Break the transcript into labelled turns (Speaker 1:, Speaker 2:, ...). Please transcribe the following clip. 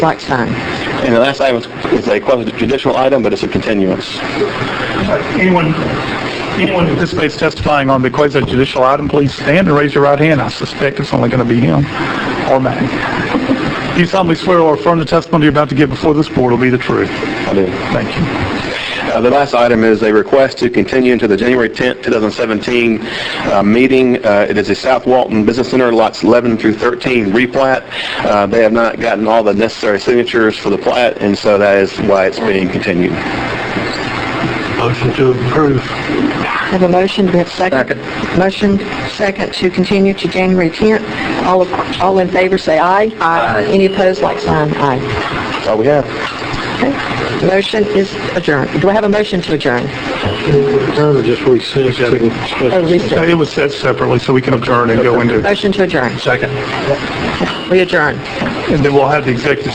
Speaker 1: Blackstein.
Speaker 2: And the last item is a quasi-judicial item, but it's a continuance.
Speaker 3: Anyone, anyone who anticipates testifying on the quasi-judicial item, please stand and raise your right hand. I suspect it's only going to be him or Matt. Do you solemnly swear or affirm the testimony you're about to give before this board will be the truth?
Speaker 2: I do.
Speaker 3: Thank you.
Speaker 2: Uh, The last item is a request to continue into the January 10th, 2017 uh, meeting. Uh, It is a South Walton Business Center, lots 11 through 13 replat. Uh, They have not gotten all the necessary signatures for the plat, and so that is why it's being continued.
Speaker 4: Motion to approve.
Speaker 1: Have a motion, do we have a second? Motion, second, to continue to January 10th. All, all in favor, say aye. Aye. Any opposed, like sign, aye.
Speaker 2: That's all we have.
Speaker 1: Okay. Motion is adjourned. Do I have a motion to adjourn?
Speaker 4: No, no, just recess.
Speaker 1: Or recess?
Speaker 3: It was said separately, so we can adjourn and go into,
Speaker 1: Motion to adjourn.
Speaker 4: Second.
Speaker 1: We adjourn.
Speaker 3: and then we'll have the executive